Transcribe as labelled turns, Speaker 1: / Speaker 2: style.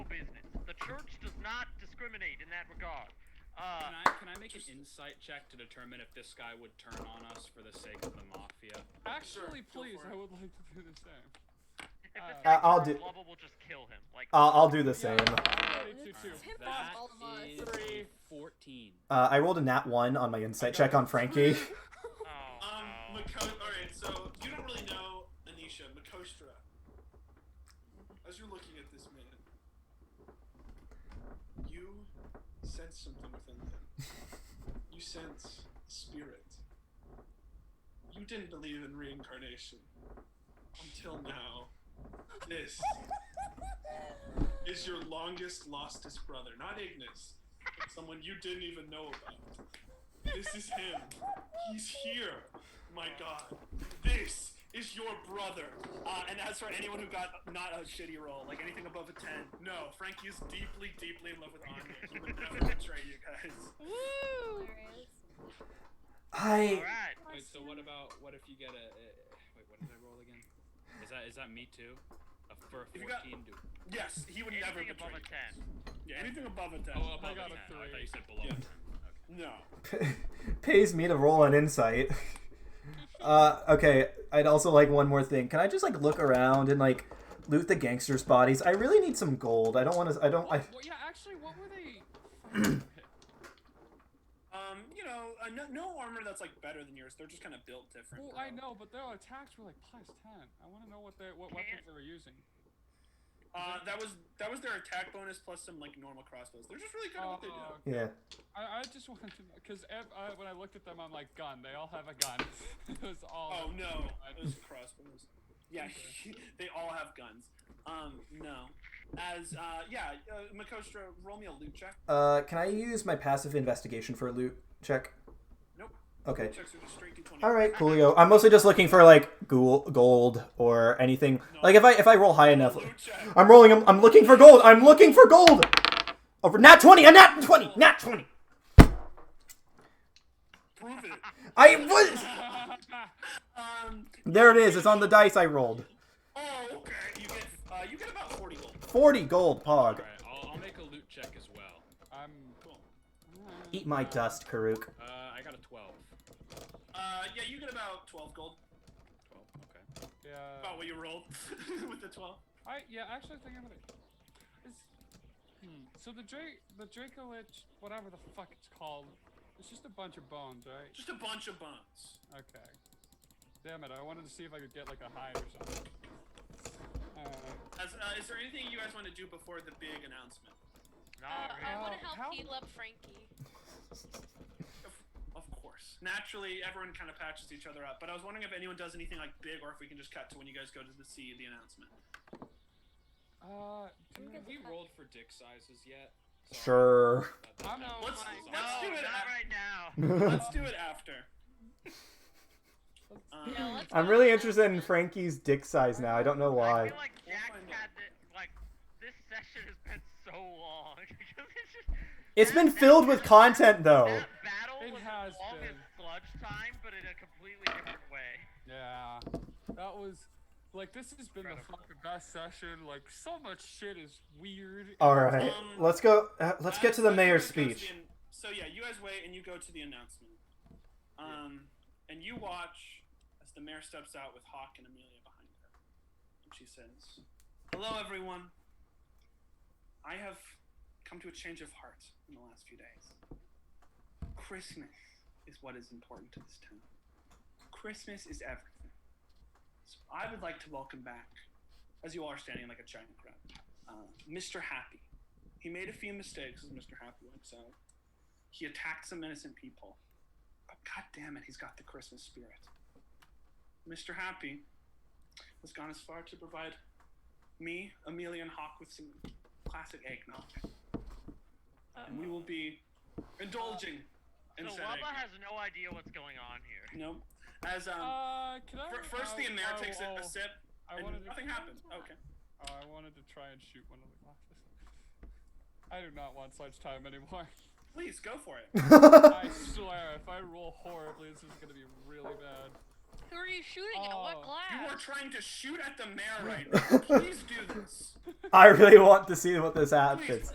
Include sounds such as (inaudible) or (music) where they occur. Speaker 1: discriminate in that regard. Uh,
Speaker 2: Can I, can I make an insight check to determine if this guy would turn on us for the sake of the mafia?
Speaker 3: Actually,
Speaker 4: Sure, go
Speaker 3: please,
Speaker 4: for it.
Speaker 3: I would like to do the same.
Speaker 1: if this
Speaker 3: Uh,
Speaker 1: guy
Speaker 5: I'll
Speaker 1: turns
Speaker 5: do- Uh,
Speaker 1: Blubble will just kill him. Like,
Speaker 5: I'll, I'll do the
Speaker 3: Yeah,
Speaker 5: same.
Speaker 3: I'm ready to, too.
Speaker 4: Tim
Speaker 2: That
Speaker 4: all of us.
Speaker 2: is
Speaker 3: Three.
Speaker 2: a 14.
Speaker 5: Uh, I rolled a nat one on my insight check on Frankie. (laughs)
Speaker 1: oh,
Speaker 4: Um,
Speaker 1: no.
Speaker 4: Mako- Alright, so you don't really know Anisha, Makostra. As you're looking at this man, you sense something within him. you sense spirit. You didn't believe in reincarnation until now. This is your longest lostest brother, not Ignis, but someone you didn't even know about. This is him. He's here. My God, this is your brother.
Speaker 6: Uh, and as for anyone who got not a shitty roll, like anything above a 10,
Speaker 4: No, Frankie is deeply, deeply in love with Anya. He would
Speaker 6: I'll
Speaker 4: never.
Speaker 6: betray you guys.
Speaker 1: All
Speaker 5: I
Speaker 1: right.
Speaker 2: Wait, so what about what if you get a? a wait, what did I roll again? Is that is that me too? A, for a
Speaker 6: If you
Speaker 2: fourteen,
Speaker 6: got-
Speaker 2: do.
Speaker 6: Yes, he would never
Speaker 1: Anything
Speaker 6: betray
Speaker 1: above a
Speaker 6: you.
Speaker 1: ten.
Speaker 6: Yeah, anything above a 10.
Speaker 2: Oh, above
Speaker 3: got
Speaker 2: a 10.
Speaker 3: a
Speaker 2: I thought
Speaker 3: three.
Speaker 2: you said below a
Speaker 4: Yeah.
Speaker 2: 10.
Speaker 6: No.
Speaker 5: pays me to roll an insight. (laughs) Uh, okay, I'd also like one more thing. Can I just like look around and like loot the gangsters' bodies? I really need some gold. I don't want to. I don't. I,
Speaker 3: What, what, yeah, actually, what were they?
Speaker 6: Um, you know, uh, no, no armor that's like better than yours. They're just kind of built different.
Speaker 3: Well,
Speaker 6: bro.
Speaker 3: I know, but their attacks were like plus ten. I want to know what they, what weapons they were using.
Speaker 6: Uh, that was that was their attack bonus plus some like normal crossbows. They're just really good at
Speaker 3: Oh,
Speaker 6: what they do.
Speaker 5: yeah.
Speaker 3: I, I just wanted to know because uh, when I looked at them, I'm like, gun. They all have a gun. (laughs) it was all.
Speaker 6: Oh no, those are crossbows. Yeah, (laughs) they all have guns. Um, no. As uh, yeah, uh, Makostra, roll me a loot check.
Speaker 5: Uh, can I use my passive investigation for a loot check?
Speaker 6: Nope.
Speaker 5: Okay.
Speaker 6: Loot checks are just straight d20.
Speaker 5: All right, coolio. I'm mostly just looking for like ghoul- gold or anything. Like if I if I roll high enough,
Speaker 6: Loot check.
Speaker 5: I'm rolling. I'm, I'm looking for gold. I'm looking for gold. Over nat twenty. A nat twenty. Nat twenty.
Speaker 6: Prove
Speaker 5: (laughs)
Speaker 6: it.
Speaker 5: I was.
Speaker 6: Um.
Speaker 5: There it is. It's on the dice I rolled.
Speaker 6: Oh, okay. You get uh, you get about forty gold.
Speaker 5: Forty gold. Pog.
Speaker 2: All right, I'll, I'll make a loot check as well.
Speaker 3: I'm.
Speaker 6: Cool.
Speaker 5: Eat my dust, Karuk.
Speaker 2: Uh, I got a twelve.
Speaker 6: Uh, yeah, you get about twelve gold.
Speaker 2: Twelve. Okay.
Speaker 3: Yeah.
Speaker 6: About what you rolled (laughs) with the twelve.
Speaker 3: I yeah. Actually, thinking about it. It's, hmm. So the Drake, the Dracolich, whatever the fuck it's called, it's just a bunch of bones, right?
Speaker 6: Just a bunch of bones.
Speaker 3: Okay. Damn it! I wanted to see if I could get like a hide or something. Uh,
Speaker 6: As, uh, is there anything you guys want to do before the big announcement?
Speaker 1: Not
Speaker 6: Uh,
Speaker 7: Uh,
Speaker 3: I
Speaker 1: really.
Speaker 3: wanna help
Speaker 5: Oh,
Speaker 3: how- heal
Speaker 7: up
Speaker 5: (laughs)
Speaker 7: Frankie.
Speaker 6: Of, of course. Naturally, everyone kind of patches each other up, but I was wondering if anyone does anything like big or if we can just cut to when you guys go to the see the announcement.
Speaker 3: Uh, dude,
Speaker 2: Have we rolled for dick sizes yet? Sorry.
Speaker 5: Sure.
Speaker 2: Not
Speaker 5: (laughs)
Speaker 2: that-
Speaker 3: I'm
Speaker 2: that-
Speaker 3: no-
Speaker 6: Let's,
Speaker 7: my
Speaker 6: let's
Speaker 1: no,
Speaker 6: do it
Speaker 1: not
Speaker 6: after.
Speaker 1: right now.
Speaker 6: Let's do it after. Um,
Speaker 5: I'm really interested in Frankie's dick size now. I don't know
Speaker 1: I
Speaker 5: why.
Speaker 1: feel like
Speaker 6: We'll
Speaker 1: Jack's
Speaker 6: find
Speaker 1: had
Speaker 6: out.
Speaker 1: the, like this session has been so long. (laughs) because it's just,
Speaker 5: It's
Speaker 1: that-
Speaker 5: been
Speaker 1: that-
Speaker 5: filled with content though.
Speaker 1: That battle
Speaker 3: It
Speaker 1: was
Speaker 3: has
Speaker 1: as long as
Speaker 3: been.
Speaker 1: sludge time, but in a completely different way.
Speaker 3: Yeah, that was like this has been the
Speaker 1: Incredible.
Speaker 3: fucking best session. Like so much shit is weird.
Speaker 5: All right. Let's go. Uh, let's get to the
Speaker 6: as
Speaker 5: mayor's
Speaker 6: everyone goes
Speaker 5: speech. (laughs)
Speaker 6: in- so yeah, you guys wait and you go to the announcement. Um, and you watch as the mayor steps out with Hawk and Amelia behind her. And she says, "Hello, everyone. I have come to a change of heart in the last few days. Christmas is what is important to this town. Christmas is everything. So I would like to welcome back, as you all are standing like a giant crowd, uh, Mr. Happy." He made a few mistakes as Mr. Happy went out. He attacked some innocent people. But god damn it, he's got the Christmas spirit. Mr. Happy has gone as far to provide me, Amelia, and Hawk with some classic eggnog. And we will be indulging in
Speaker 1: So
Speaker 6: said
Speaker 1: Wubba
Speaker 6: eggnog.
Speaker 1: has no idea what's going on here.
Speaker 6: No. As um
Speaker 3: Uh, can I?
Speaker 6: fir- first the
Speaker 3: oh,
Speaker 6: Amer
Speaker 3: oh,
Speaker 6: takes a-
Speaker 3: oh,
Speaker 6: a sip
Speaker 3: I
Speaker 6: and
Speaker 3: wanted to-
Speaker 6: nothing happens. Okay.
Speaker 3: Oh, I wanted to try and shoot one of the glasses. (laughs) I do not want such time anymore. (laughs)
Speaker 6: Please go for it.
Speaker 3: I swear, if I roll horribly, this is gonna be really bad.
Speaker 7: Who are you shooting at?
Speaker 3: Oh.
Speaker 7: What
Speaker 6: you are
Speaker 7: glass?
Speaker 6: trying to shoot at the mayor right now. Please do this.
Speaker 5: I really want to see what this happens.